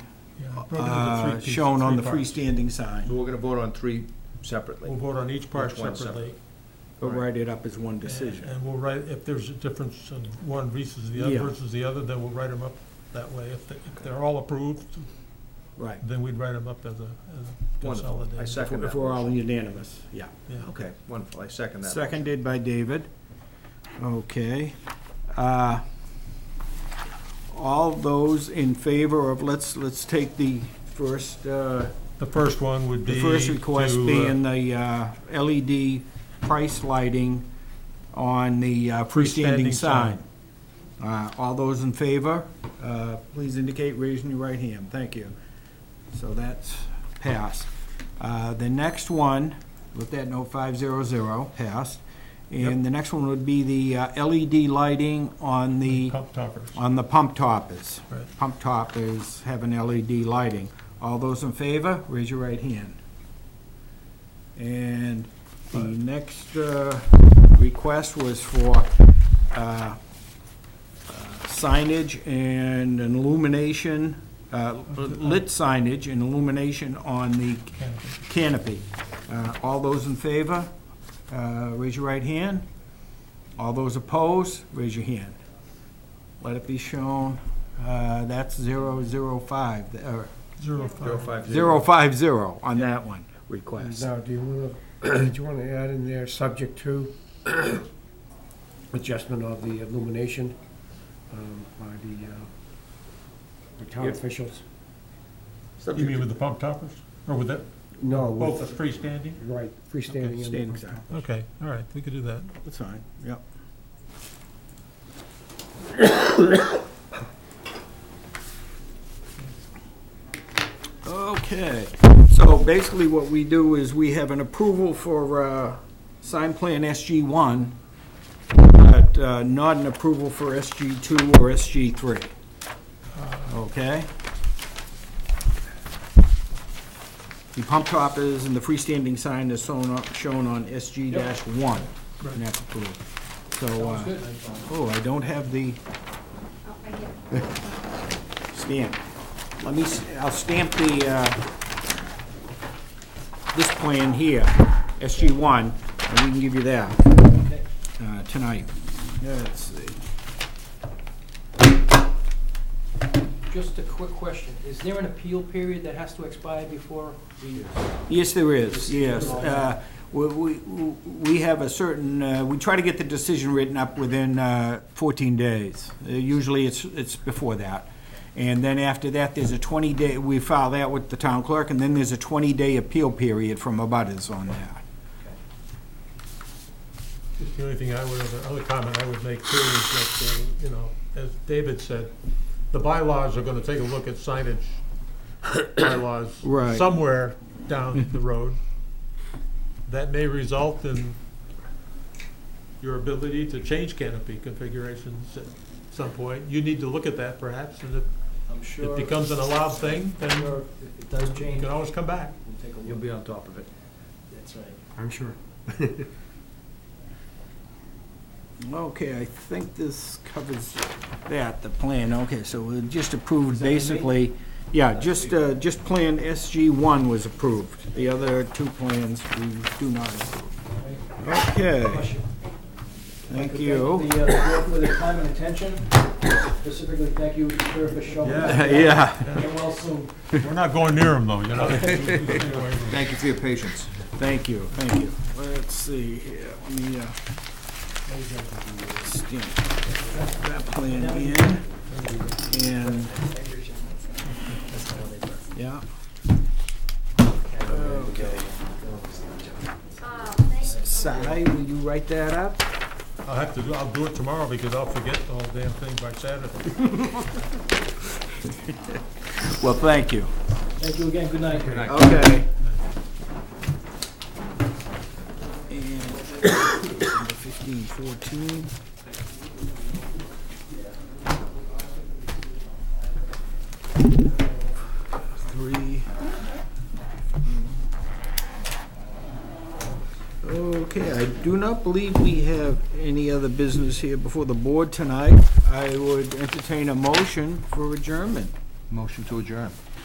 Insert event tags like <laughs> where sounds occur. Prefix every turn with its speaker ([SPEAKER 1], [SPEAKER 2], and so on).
[SPEAKER 1] uh,
[SPEAKER 2] three pieces,
[SPEAKER 1] shown on the
[SPEAKER 2] three parts.
[SPEAKER 1] freestanding sign.
[SPEAKER 3] We're gonna vote on three
[SPEAKER 2] We'll
[SPEAKER 3] separately.
[SPEAKER 2] vote on each part
[SPEAKER 3] Each one
[SPEAKER 2] separately.
[SPEAKER 1] But write it up as one decision.
[SPEAKER 2] And we'll write, if there's a difference in one versus the other
[SPEAKER 1] Yeah.
[SPEAKER 2] versus the other, then we'll write them up that way. If they- if they're all approved,
[SPEAKER 1] Right.
[SPEAKER 2] then we'd write them up as a as a
[SPEAKER 3] Wonderful. I
[SPEAKER 2] consolidated.
[SPEAKER 3] second
[SPEAKER 1] If
[SPEAKER 3] that.
[SPEAKER 1] we're all
[SPEAKER 3] motion.
[SPEAKER 1] unanimous, yeah.
[SPEAKER 2] Yeah.
[SPEAKER 3] Okay, wonderful. I second that. motion.
[SPEAKER 1] Seconded by David. Okay. Uh, All those in favor of, let's, let's take the first, uh,
[SPEAKER 2] The first one would be
[SPEAKER 1] the first request
[SPEAKER 2] to, uh,
[SPEAKER 1] being the uh, LED price lighting on the uh, freestanding
[SPEAKER 2] Freestanding
[SPEAKER 1] sign. Uh, All those in favor, uh, please indicate raising your right hand. Thank you. So that's passed. Uh, The next one, with that note, 500, passed. And the next one would be the uh, LED lighting on the
[SPEAKER 2] Pump toppers.
[SPEAKER 1] on the pump toppers.
[SPEAKER 2] Right.
[SPEAKER 1] Pump toppers have an LED lighting. All those in favor, raise your right hand. And the next uh, request was for uh, uh, signage and an illumination, uh, lit signage and illumination on the
[SPEAKER 2] Canopy.
[SPEAKER 1] canopy. Uh, All those in favor, uh, raise your right hand. All those opposed, raise your hand. Let it be shown, uh, that's zero, zero, five, or
[SPEAKER 2] Zero
[SPEAKER 3] Zero
[SPEAKER 2] five.
[SPEAKER 3] five
[SPEAKER 1] zero,
[SPEAKER 3] zero.
[SPEAKER 1] five, zero on that one request.
[SPEAKER 4] Now, do you want to, <clears throat> do you want to add in there, subject to adjustment of the illumination um, by the, uh, the town
[SPEAKER 3] Yep.
[SPEAKER 4] officials?
[SPEAKER 2] You mean with the pump toppers? Or with that,
[SPEAKER 4] No,
[SPEAKER 2] both the
[SPEAKER 4] with,
[SPEAKER 2] freestanding?
[SPEAKER 4] right, freestanding.
[SPEAKER 1] Standing
[SPEAKER 4] and-
[SPEAKER 1] sign,
[SPEAKER 2] Okay, all right, we could do that.
[SPEAKER 1] that's fine, yep. Okay, so basically what we do is we have an approval for uh, sign plan SG1, but uh, not an approval for SG2 or SG3. Okay? The pump top is, and the freestanding sign is shown on, shown on SG-1. And that's approved. So, uh, oh, I don't have the
[SPEAKER 5] Oh, I get it.
[SPEAKER 1] stamp. Let me, s- I'll stamp the, uh, this plan here, SG-1, and we can give you that uh, tonight. Let's see.
[SPEAKER 6] Just a quick question. Is there an appeal period that has to expire before we,
[SPEAKER 1] Yes, there is, yes. Uh, We, we we have a certain, uh, we try to get the decision written up within uh, 14 days. Uh, Usually, it's, it's before that. And then after that, there's a 20-day, we file that with the town clerk, and then there's a 20-day appeal period from abutters on that.
[SPEAKER 2] Just the only thing I would, the other comment I would make too is that, uh, you know, as David said, the bylaws are gonna take a look at signage bylaws.
[SPEAKER 1] Right.
[SPEAKER 2] Somewhere down the road. That may result in your ability to change canopy configurations at some point. You need to look at that perhaps, and if
[SPEAKER 6] I'm
[SPEAKER 2] it
[SPEAKER 6] sure, I'm
[SPEAKER 2] becomes an allowed thing, then
[SPEAKER 6] sure if it does
[SPEAKER 2] you
[SPEAKER 6] change,
[SPEAKER 2] can
[SPEAKER 6] we'll
[SPEAKER 2] always come back.
[SPEAKER 6] take a
[SPEAKER 3] You'll
[SPEAKER 6] look.
[SPEAKER 3] be on top of it.
[SPEAKER 6] That's right.
[SPEAKER 4] I'm sure.
[SPEAKER 1] <laughs> Okay, I think this covers that, the plan, okay, so we just approved
[SPEAKER 6] that me?
[SPEAKER 1] basically, yeah, just, uh, just Plan SG-1 was approved. The other two plans, we do not approve. Okay,
[SPEAKER 6] Question.
[SPEAKER 1] thank you. <laughs>
[SPEAKER 6] The, uh, the board for their time and attention. Specifically, thank you, sir, for
[SPEAKER 1] <laughs>
[SPEAKER 6] showing up.
[SPEAKER 1] Yeah,
[SPEAKER 6] Get well soon.
[SPEAKER 2] We're not going near them though, you <laughs> know?
[SPEAKER 3] Thank you for your patience.
[SPEAKER 1] thank you, thank you. Let's see here, let me, uh, stamp that plan in, and, yeah. Okay. Si, will you write that up?
[SPEAKER 2] I'll have to do, I'll do it tomorrow because I'll forget the whole damn thing by Saturday.
[SPEAKER 1] Well, thank you.
[SPEAKER 6] Thank you again. Good night.
[SPEAKER 1] Okay. And number fifteen fourteen. Three. Okay, I do not believe we have any other business here before the board tonight. I would entertain a motion for adjournment.
[SPEAKER 3] Motion to adjourn.